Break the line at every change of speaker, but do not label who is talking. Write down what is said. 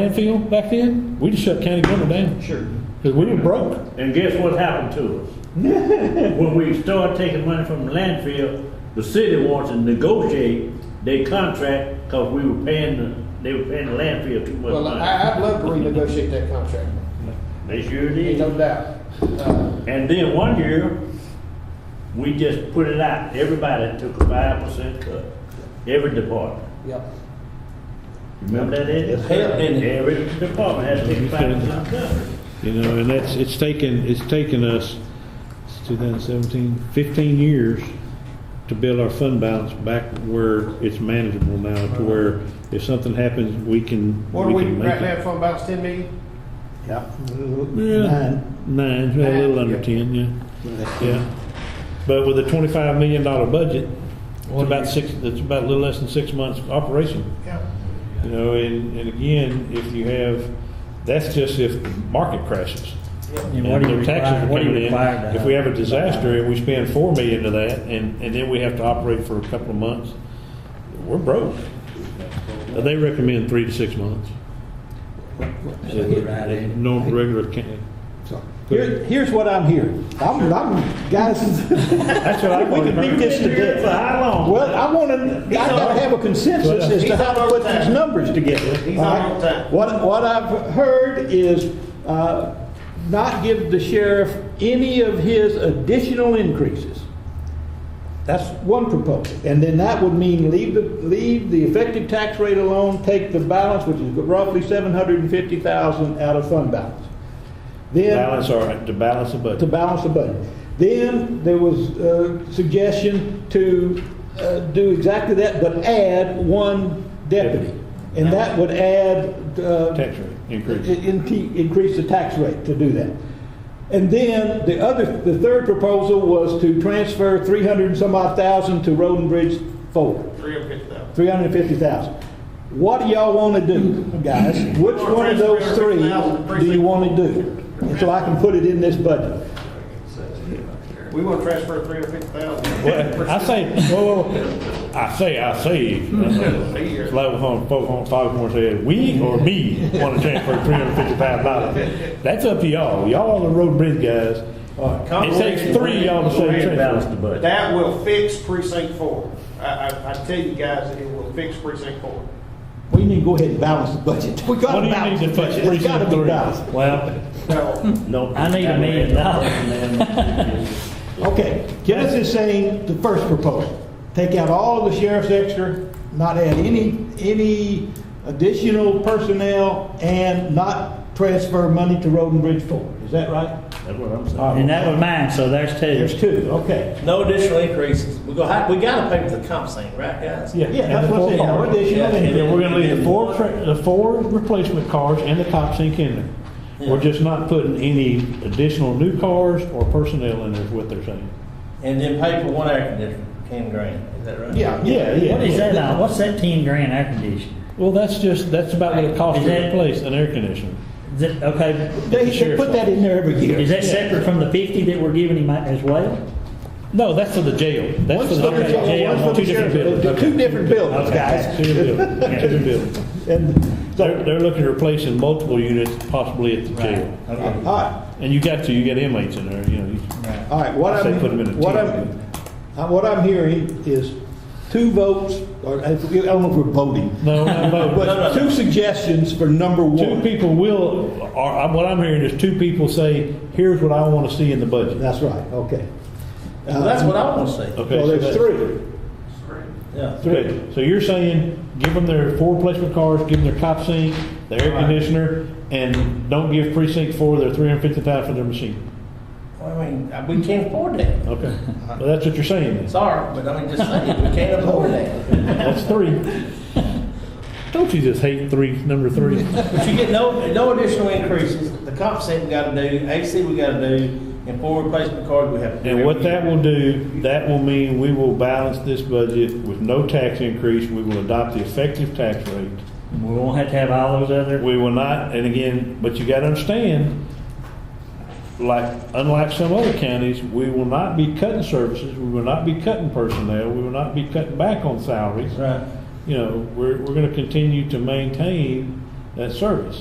landfill back then, we just shut county government down,
Sure.
because we were broke.
And guess what happened to us? When we start taking money from the landfill, the city wants to negotiate their contract because we were paying, the- they were paying the landfill too much
Well,
money.
I, I'd love to renegotiate that contract,
They sure
ain't
did.
no doubt. Uh,
And then one year, we just put it out, everybody took a five percent cut, every department.
Yep.
Remember that, Ed?
Yes, sir.
Every department has to take five percent cut.
You know, and that's, it's taken, it's taken us, it's 2017, 15 years to build our fund balance back where it's manageable now, to where if something happens, we can,
What are we,
we can make
right now,
it.
from about ten million?
Yeah.
Yeah,
Nine.
Nine, a little
Nine,
under
yeah.
10, yeah, yeah. But with a $25 million budget, it's about six, it's about a little less than six months operation.
Yeah.
You know, and, and again, if you have, that's just if the market crashes.
And what do you
their taxes
require,
are
what do you
coming in.
require to?
If we have a disaster and we spend four million to that, and, and then we have to operate for a couple of months, we're broke. Uh, They recommend three to six months.
So you're right, Andy.
Normal, regular, can-
Here, here's what I'm hearing. I'm, I'm, guys,
that's what I
we
want
could beat
to
this to
For
death.
how long?
Well, I want to, I gotta have a consensus as to how to put these numbers together.
He's on
All
time.
right? What, what I've heard is, uh, not give the sheriff any of his additional increases. That's one proposal. And then that would mean leave the, leave the effective tax rate alone, take the balance, which is roughly seven hundred and fifty thousand out of fund balance. Then
balance our, to balance the
to
budget.
balance the budget. Then there was a suggestion to uh, do exactly that, but add one deputy. And that would add. uh,
Tax rate increase.
i- in- Increase the tax rate to do that. And then the other, the third proposal was to transfer 300 and some odd thousand to Roden Bridge Forward.
Three hundred fifty thousand.
350,000. What do y'all want to do, guys? Which one of those three do you want to do? And so I can put it in this budget.
We wanna transfer three hundred fifty thousand.
Well, I say, whoa, whoa, whoa. I say, I say, level home, folk on, five more said, we or me want to transfer three hundred fifty thousand dollars. That's up to y'all. Y'all are the road bridge guys. It takes three of y'all to
Go
say
ahead and balance
transfer.
the budget.
That will fix precinct four. I, I, I tell you guys, it will fix precinct four.
We need to go ahead and balance the budget. We
What
got
do
to
you need
balance
to
the
fix
budget. It's got to be
precinct
balanced.
three? Well,
No,
No.
I need a million dollars. Okay, Kenneth is saying the first proposal, take out all of the sheriff's extra, not add any, any additional personnel, and not transfer money to Roden Bridge Forward. Is that right?
That's what I'm saying.
And that was mine, so there's
There's
two.
two, okay.
No additional increases. We're gonna have, we gotta pay for the comp thing, right, guys?
yeah.
Yeah, that's what I said, no additional.
Yeah,
And
increase.
then we're gonna leave the four, tra- the four replacement cars and the cop sink in there. We're just not putting any additional new cars or personnel in there, is what they're saying.
And then pay for one air conditioner, ten grand, is that right?
Yeah, yeah.
Yeah, yeah.
What is that, now? what's that ten grand air conditioning?
Well, that's just, that's about what it costs
Is
to
that-
replace an air conditioner.
Is that, okay,
They, they put that in there every year.
is that separate from the fifty that we're giving him as well?
No, that's for the jail. That's for
One's
the,
for the jail,
okay,
one's for
two
the
different
sheriff.
buildings.
They're Two
Okay.
different buildings,
Okay. Two
guys.
different buildings, two different buildings.
And
They're,
so,
they're looking to replace in multiple units possibly at the jail.
all
Okay.
right.
And you got to, you got inmates in there, you know. you-
All right, what
I say
I'm,
put 'em in a
what
team.
I'm, uh, what I'm hearing is two votes, or uh, I don't know if we're voting,
No, not both.
but two suggestions for number
Two
one.
people will, or, what I'm hearing is two people say, here's what I want to see in the budget.
That's right, okay. Um,
Well, that's what I wanna see.
Okay,
Well,
so
there's
that's-
three.
Yeah.
Good. So you're saying, give them their four replacement cars, give them their cop sink, their air conditioner, and don't give precinct four their three hundred fifty thousand for their machine?
Well, I mean, uh, we can't afford that.
Okay, well, that's what you're saying then.
Sorry, but I mean, just saying, we can't afford that.
That's three. Don't you just hate three, number three?
But you get no, no additional increases. The comp thing we gotta do, AC we gotta do, and four replacement cars we have to do.
And what
every
that
year.
will do, that will mean we will balance this budget with no tax increase. We will adopt the effective tax rate.
We won't have to have all those other,
We will not, and again, but you gotta understand, like, unlike some other counties, we will not be cutting services, we will not be cutting personnel, we will not be cutting back on salaries.
Right.
You know, we're, we're gonna continue to maintain that service.